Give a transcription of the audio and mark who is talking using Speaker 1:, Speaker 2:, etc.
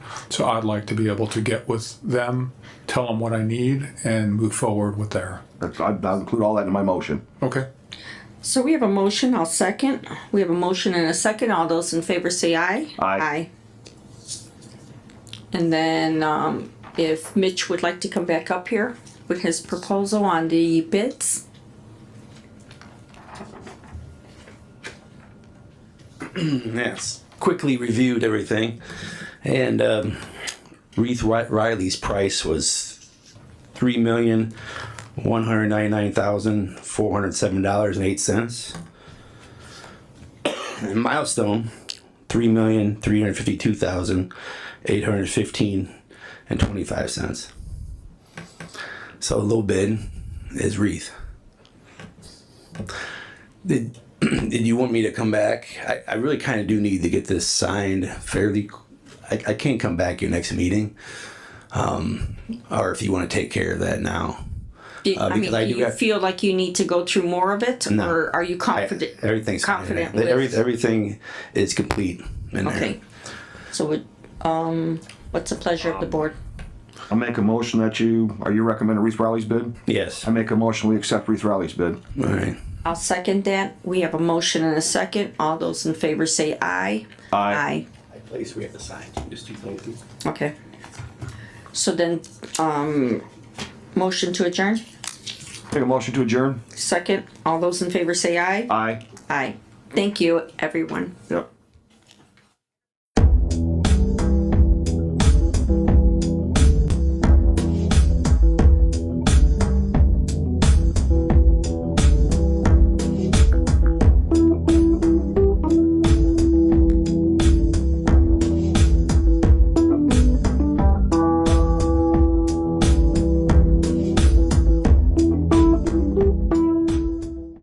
Speaker 1: So I'd like to be able to get with them, tell them what I need, and move forward with there.
Speaker 2: That's, I- I'll include all that in my motion.
Speaker 1: Okay.
Speaker 3: So we have a motion, I'll second. We have a motion and a second. All those in favor say aye.
Speaker 2: Aye.
Speaker 3: And then, um, if Mitch would like to come back up here with his proposal on the bids.
Speaker 4: Yes. Quickly reviewed everything, and um, Reith Ri- Riley's price was three million one hundred ninety nine thousand four hundred seven dollars and eight cents. And Milestone, three million three hundred fifty two thousand eight hundred fifteen and twenty five cents. So low bid is Reith. Did did you want me to come back? I, I really kind of do need to get this signed fairly. I, I can't come back your next meeting. Um, or if you want to take care of that now.
Speaker 3: Do- I mean,
Speaker 4: Uh, because I
Speaker 3: do
Speaker 4: do
Speaker 3: you
Speaker 4: have-
Speaker 3: feel like you need to go through more of it?
Speaker 4: No.
Speaker 3: Or are you
Speaker 4: I,
Speaker 3: confident?
Speaker 4: everything's signed.
Speaker 3: Confident
Speaker 4: That every-
Speaker 3: with-
Speaker 4: everything is complete in there.
Speaker 3: Okay. So would, um, what's the pleasure of the board?
Speaker 2: I make a motion that you, are you recommending Reese Riley's bid?
Speaker 4: Yes.
Speaker 2: I make a motion, we accept Reese Riley's bid.
Speaker 4: All right.
Speaker 3: I'll second that. We have a motion and a second. All those in favor say aye.
Speaker 2: Aye.
Speaker 4: I place we have to sign. Just two places.
Speaker 3: Aye. Okay. So then, um, motion to adjourn?
Speaker 2: Make a motion to adjourn?
Speaker 3: Second, all those in favor say aye.
Speaker 2: Aye.
Speaker 3: Aye. Thank you, everyone.
Speaker 2: Yep.